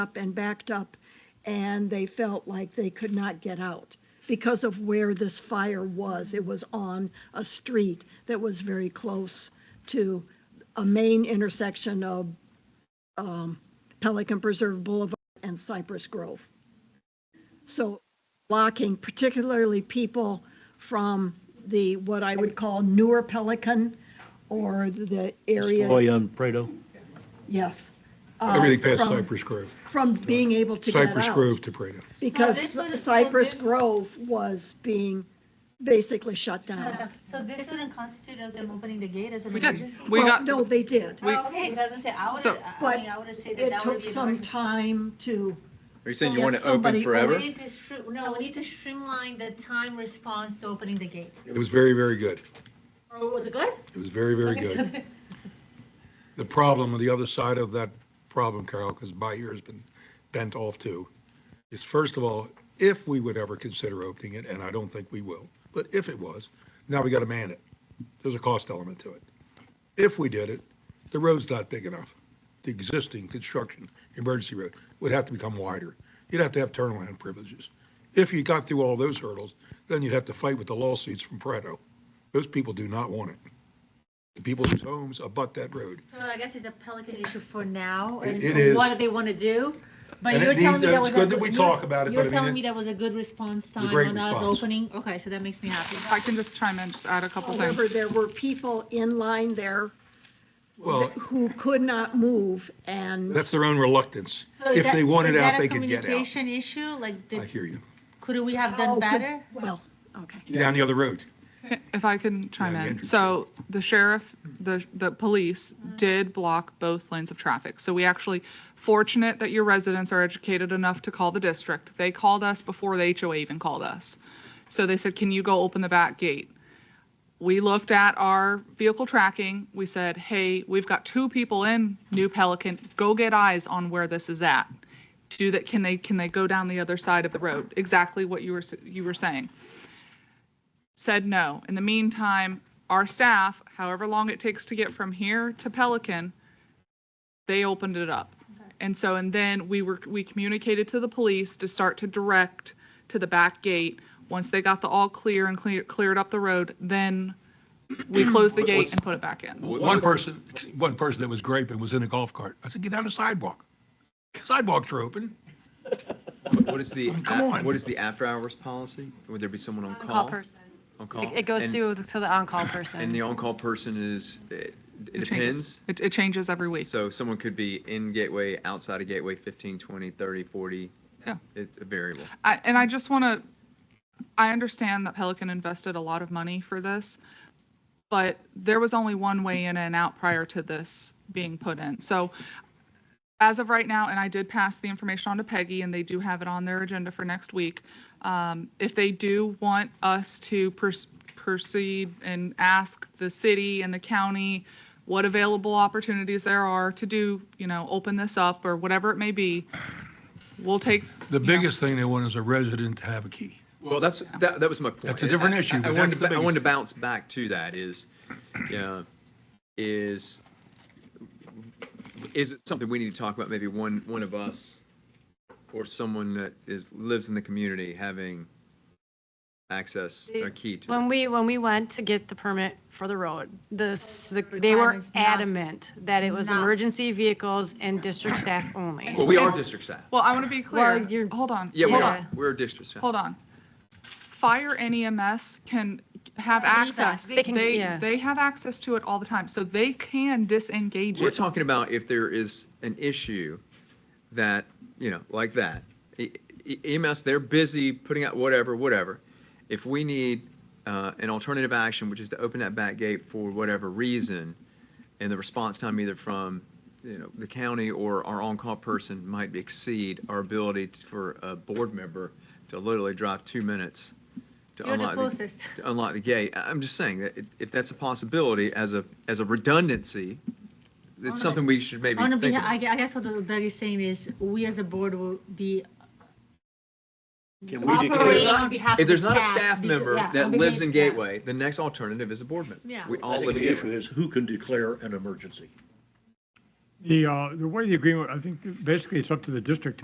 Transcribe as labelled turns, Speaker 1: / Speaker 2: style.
Speaker 1: up and backed up, and they felt like they could not get out because of where this fire was. It was on a street that was very close to a main intersection of um, Pelican Preserve Boulevard and Cypress Grove. So blocking particularly people from the, what I would call newer Pelican or the area,
Speaker 2: Stoy on Prado.
Speaker 1: yes. uh,
Speaker 3: Everything past
Speaker 1: from-
Speaker 3: Cypress Grove,
Speaker 1: From being able to get out.
Speaker 3: Cypress Grove to Prado.
Speaker 4: So this
Speaker 1: Because
Speaker 4: would- so
Speaker 1: Cypress
Speaker 4: this-
Speaker 1: Grove was being basically shut down.
Speaker 4: So Uh-huh. this wouldn't constitute of them opening the gate as an
Speaker 5: We did.
Speaker 4: emergency?
Speaker 5: We
Speaker 1: Well,
Speaker 5: got-
Speaker 1: No, they did.
Speaker 5: we-
Speaker 4: Oh, Okay, 'cause I was gonna say, I would,
Speaker 5: So-
Speaker 4: I
Speaker 1: But
Speaker 4: mean, I would have said that
Speaker 1: It
Speaker 4: that would
Speaker 1: took
Speaker 4: be. an
Speaker 1: some
Speaker 4: emergency.
Speaker 1: time to,
Speaker 6: Are you saying
Speaker 1: Get
Speaker 6: you want it
Speaker 1: somebody
Speaker 6: open
Speaker 1: who
Speaker 4: We
Speaker 6: forever?
Speaker 4: need to, str- no, we need to streamline the time response to opening the gate.
Speaker 3: It was very, very good.
Speaker 4: Or Oh, was it good?
Speaker 3: It was very, very
Speaker 4: Okay, so
Speaker 3: good.
Speaker 4: the-
Speaker 3: The problem, the other side of that problem, Carol, because my ear's been bent off too, is first of all, if we would ever consider opening it, and I don't think we will, but if it was, now we got to man it. There's a cost element to it. If we did it, the road's not big enough. The existing construction, emergency road, would have to become wider. You'd have to have turnaround privileges. If you got through all those hurdles, then you'd have to fight with the lawsuits from Preto. Those people do not want it. The people whose homes abut that road.
Speaker 4: So I guess it's a Pelican issue for now,
Speaker 3: It-
Speaker 4: and
Speaker 3: it
Speaker 4: so what
Speaker 3: is.
Speaker 4: do they want to do? But
Speaker 3: And it
Speaker 4: you're telling
Speaker 3: needs-
Speaker 4: me that
Speaker 3: it's
Speaker 4: was a.
Speaker 3: good that we
Speaker 4: you're-
Speaker 3: talk about it, but I
Speaker 4: You're
Speaker 3: mean, it-
Speaker 4: telling me that was a good response time
Speaker 3: great
Speaker 4: on us
Speaker 3: response.
Speaker 4: opening, okay, so that makes me happy.
Speaker 5: If I can just chime in, just add a couple
Speaker 1: however,
Speaker 5: things.
Speaker 1: Oh, there were people in line there
Speaker 3: Well,
Speaker 1: who could not move and
Speaker 3: that's their own reluctance.
Speaker 4: So is
Speaker 3: If
Speaker 4: that-
Speaker 3: they wanted
Speaker 4: is that
Speaker 3: out,
Speaker 4: a
Speaker 3: they could get out.
Speaker 4: Communication issue, like,
Speaker 3: I
Speaker 4: did,
Speaker 3: hear you.
Speaker 4: could we have
Speaker 1: Oh,
Speaker 4: done
Speaker 1: good.
Speaker 4: better?
Speaker 1: Well, okay.
Speaker 3: Get Down the other road.
Speaker 5: If I can chime
Speaker 3: Yeah,
Speaker 5: in.
Speaker 3: Andrew.
Speaker 5: So the sheriff, the, the police did block both lanes of traffic. So we actually, fortunate that your residents are educated enough to call the district. They called us before the HOA even called us. So they said, can you go open the back gate? we looked at our vehicle tracking. We said, hey, we've got two people in New Pelican. Go get eyes on where this is at. Do that, can they, can they go down the other side of the road? Exactly what you were, s- you were saying. Said no. In the meantime, our staff, however long it takes to get from here to Pelican, they opened it up. And so, and then we were, we communicated to the police to start to direct to the back gate. Once they got the all clear and clear, cleared up the road, then we closed the gate and put it back in.
Speaker 3: One person, one person that was griping was in a golf cart. I said, get down the sidewalk. Sidewalks are open.
Speaker 6: What is the,
Speaker 3: Come on.
Speaker 6: what is the after hours policy? Would there be someone on
Speaker 7: On-call
Speaker 6: call?
Speaker 7: person.
Speaker 6: On
Speaker 7: It
Speaker 6: call?
Speaker 7: it goes
Speaker 6: And-
Speaker 7: to, to the on-call
Speaker 6: And the
Speaker 7: person.
Speaker 6: on-call person is, it it
Speaker 5: It changes.
Speaker 6: depends.
Speaker 5: It, it changes every week.
Speaker 6: So someone could be in gateway, outside of gateway, 15, 20, 30, 40.
Speaker 5: Yeah.
Speaker 6: It's a variable.
Speaker 5: I, and I just want to, I understand that Pelican invested a lot of money for this, but there was only one way in and out prior to this being put in. So as of right now, and I did pass the information on to Peggy, and they do have it on their agenda for next week. Um, if they do want us to pers- proceed and ask the city and the county what available opportunities there are to do, you know, open this up or whatever it may be, we'll take.
Speaker 3: The
Speaker 5: you know,
Speaker 3: biggest thing they want is a resident to have a key.
Speaker 6: Well, that's, that, that was my point.
Speaker 3: That's a different
Speaker 6: I- I-
Speaker 3: issue, but
Speaker 6: I
Speaker 3: that's
Speaker 6: wanted,
Speaker 3: the
Speaker 6: to- I wanted to
Speaker 3: biggest-
Speaker 6: bounce back to that is, yeah, is, is it something we need to talk about? Maybe one, one of us or someone that is, lives in the community having access, a key to. it.
Speaker 7: When we, when we went to get the permit for the road, the, s- the- they were
Speaker 4: Requirements not-
Speaker 7: adamant that it was
Speaker 4: not-
Speaker 7: emergency vehicles and district staff only.
Speaker 6: Well, we are district staff.
Speaker 5: Well, I want to be
Speaker 7: Well,
Speaker 5: clear.
Speaker 7: you're-
Speaker 5: Hold on.
Speaker 6: Yeah, we
Speaker 5: hold
Speaker 6: are.
Speaker 5: on,
Speaker 6: We're a district staff.
Speaker 5: Hold on. Fire and EMS can have access.
Speaker 4: They
Speaker 5: They,
Speaker 7: can- yeah.
Speaker 5: they have access to it all the time, so they can disengage
Speaker 6: We're
Speaker 5: it.
Speaker 6: talking about if there is an issue that, you know, like that. E- E- EMS, they're busy putting out whatever, whatever. If we need uh, an alternative action, which is to open that back gate for whatever reason, and the response time either from, you know, the county or our on-call person might exceed our ability t- for a board member to literally drive two minutes to
Speaker 4: You're the
Speaker 6: unlock.
Speaker 4: closest.
Speaker 6: To unlock the gate. I- I'm just saying that if- if that's a possibility as a, as a redundancy,
Speaker 4: On a-
Speaker 6: it's something we should maybe
Speaker 4: On a
Speaker 6: think
Speaker 4: behalf, I
Speaker 6: about.
Speaker 4: gue- I guess what Doug is saying is, we as a board will be
Speaker 2: Can we
Speaker 4: operating
Speaker 2: declare?
Speaker 4: on behalf
Speaker 6: If
Speaker 4: of the
Speaker 6: there's
Speaker 4: staff.
Speaker 6: not a staff
Speaker 4: because-
Speaker 6: member
Speaker 4: yeah,
Speaker 6: that
Speaker 4: on
Speaker 6: lives
Speaker 4: behalf-
Speaker 6: in
Speaker 4: yeah.
Speaker 6: Gateway, the next alternative is a board member.
Speaker 4: Yeah.
Speaker 6: We all
Speaker 2: I think
Speaker 6: live in
Speaker 2: the issue
Speaker 6: Gateway.
Speaker 2: is who can declare an emergency?
Speaker 8: The, uh, the way the agreement, I think basically it's up to the district to